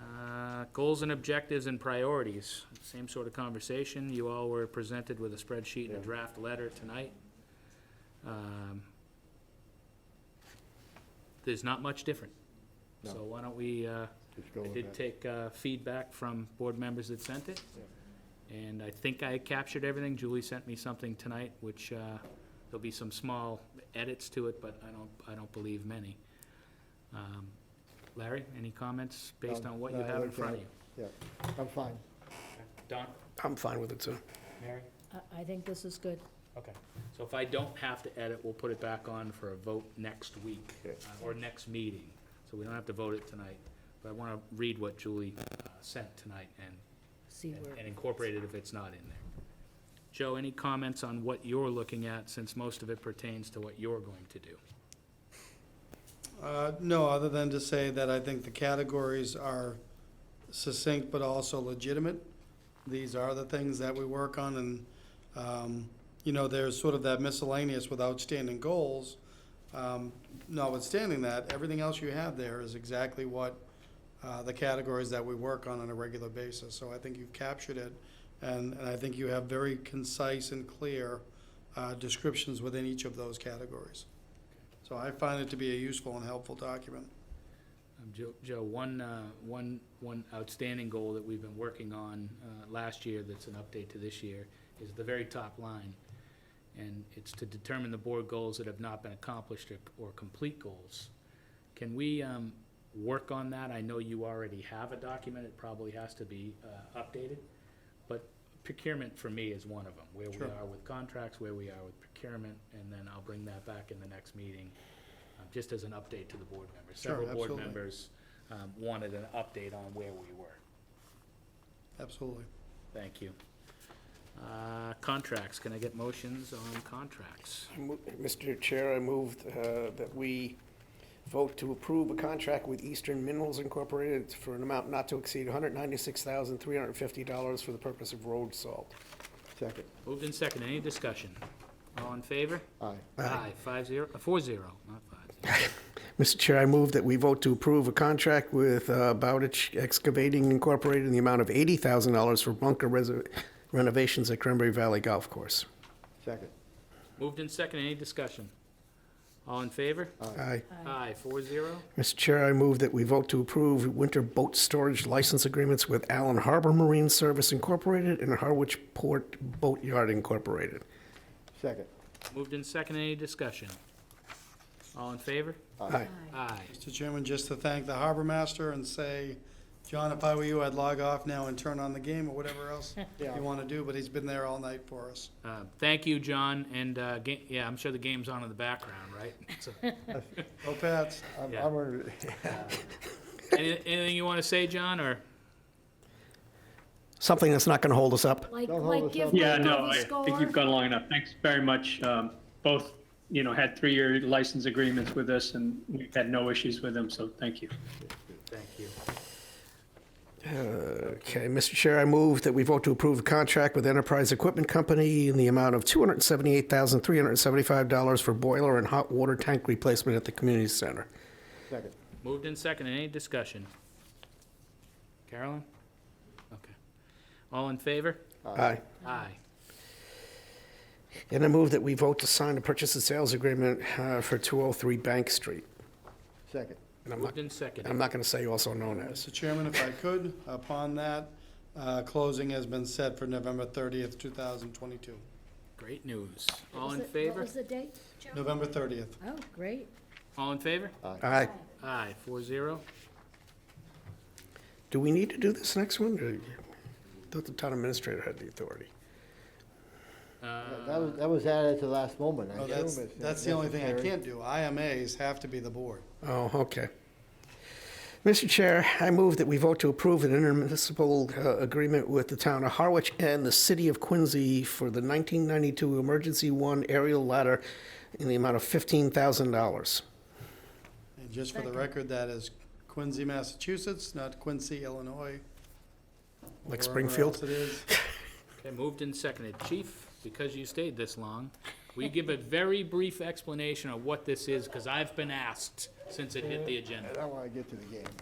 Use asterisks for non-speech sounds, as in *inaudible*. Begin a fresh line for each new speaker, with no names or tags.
Uh, Goals and objectives and priorities, same sort of conversation. You all were presented with a spreadsheet and a
Yeah.
draft letter tonight. Um, There's not much different.
No.
So why don't we, uh,
Just go
I
with
did
that.
take uh, feedback from board members that sent it, and I think I captured everything. Julie sent me something tonight, which, uh, there'll be some small edits to it, but I don't, I don't believe many. Um, Larry, any comments based
No,
on what
no,
you
I
have in
looked
front
at
of you?
I'm fine.
Don?
I'm fine with it, too.
Mary?
I, I think this is good.
Okay. So if I don't have to edit, we'll put it back on for a vote next week,
Okay.
uh, or next meeting, so we don't have to vote it tonight. But I want to read what Julie uh, sent tonight and
See
and-
where,
and incorporate it if it's not in there. Joe, any comments on what you're looking at, since most of it pertains to what you're going to do?
Uh, No, other than to say that I think the categories are succinct but also legitimate. These are the things that we work on, and, um, you know, there's sort of that miscellaneous with outstanding goals. Um, Notwithstanding that, everything else you have there is exactly what uh, the categories that we work on on a regular basis. So I think you've captured it, and and I think you have very concise and clear uh, descriptions within each of those categories. So I find it to be a useful and helpful document.
Um, Joe- Joe, one, uh, one, one outstanding goal that we've been working on uh, last year that's an update to this year is the very top line. And it's to determine the board goals that have not been accomplished or- or complete goals. Can we um, work on that? I know you already have a document, it probably has to be uh, updated. But procurement for me is one of them, where we
Sure.
are with contracts, where we are with procurement, and then I'll bring that back in the next meeting, uh, just as an update to the board members.
Sure,
Several board
absolutely.
members um, wanted an update on where we were.
Absolutely.
Thank you. Uh, Contracts, can I get motions on contracts?
I mo- Mr. Chair, I moved uh, that we vote to approve a contract with Eastern Minerals Incorporated for an amount not to exceed $196,350 for the purpose of road salt.
Second.
Moved in second, any discussion? All in favor?
Aye.
Aye, five zero, uh, four zero, not five zero.
Mr. Chair, I move that we vote to approve a contract with uh, Bowditch Excavating Incorporated in the amount of $80,000 for bunker reser- renovations at Cranberry Valley Golf Course.
Second.
Moved in second, any discussion? All in favor?
Aye.
Aye, four zero.
Mr. Chair, I move that we vote to approve winter boat storage license agreements with Allen Harbor Marine Service Incorporated and Harwich Port Boat Yard Incorporated.
Second.
Moved in second, any discussion? All in favor?
Aye.
Aye.
Mr. Chairman, just to thank the harbor master and say, John, if I were you, I'd log off now and turn on the game or whatever else
Yeah.
you want to do, but he's been there all night for us.
Uh, Thank you, John, and, uh, ga- yeah, I'm sure the game's on in the background, *laughs* right? So,
Go Pats.
I'm,
Yeah.
I'm, gonna-
any- Anything you want to say, John, or?
Something that's not going to hold us up.
like,
Don't hold
like
us
give
up.
Yeah, no,
Michael the
I think you've
score.
gone long enough. Thanks very much. Um, Both, you know, had three-year license agreements with us, and we've had no issues with them, so thank you.
Thank you.
Okay, Mr. Chair, I move that we vote to approve a contract with Enterprise Equipment Company in the amount of $278,375 for boiler and hot water tank replacement at the community center.
*laughs* second.
Moved in second, any discussion? Carolyn? Okay. All in favor?
Aye.
Aye.
And I move that we vote to sign a purchase and sales agreement uh, for 203 Bank Street.
Second.
And I'm not,
Moved in second.
I'm not going to say also known as.
Mr. Chairman, if I could, upon that, uh, closing has been set for November 30th, 2022.
Great news. All
Was
in
it- What
favor?
was the date?
November 30th.
Oh, great.
All in favor?
Aye.
Aye, four zero.
Do we need to do this next one? Or- I Thought the town administrator had the authority.
That that was,
Uh,
that was added to last moment. I
No,
assume
Oh, that's,
it's
that's the only thing I
necessary.
can't do. IMAs have to be the board.
Oh, okay. Mr. Chair, I move that we vote to approve an intermunicipal uh, agreement with the town of Harwich and the city of Quincy for the 1992 Emergency One aerial ladder in the amount of $15,000.
And just for the
Second.
record, that is Quincy, Massachusetts, not Quincy, Illinois. or
Like
wherever
Springfield?
else it is.
Okay, moved and seconded. Chief, because you stayed this long, will you give a very brief explanation of what this is? Because I've been asked since it hit the agenda.
I don't wanna get to the game.